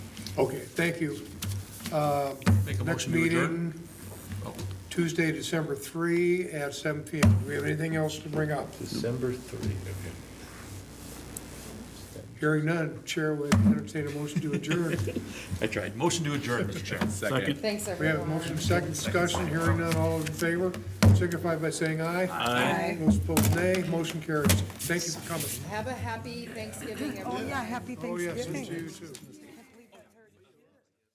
Okay, thank you. Uh, Make a Next motion to adjourn? Oh. meeting, Tuesday, December 3 at seven PM. Do we have anything else to bring up? December three. Hearing none, Chair would entertain a motion to adjourn. I tried. Motion to adjourn, Mr. Chairman. Second. Thanks, We everyone. have a motion, second discussion, hearing none, all in favor, signify by saying aye. Aye. Those opposed, nay, motion carries. Thank you for coming. Have a happy Thanksgiving, everyone. Yeah, happy Oh, yes, Thanksgiving. you too.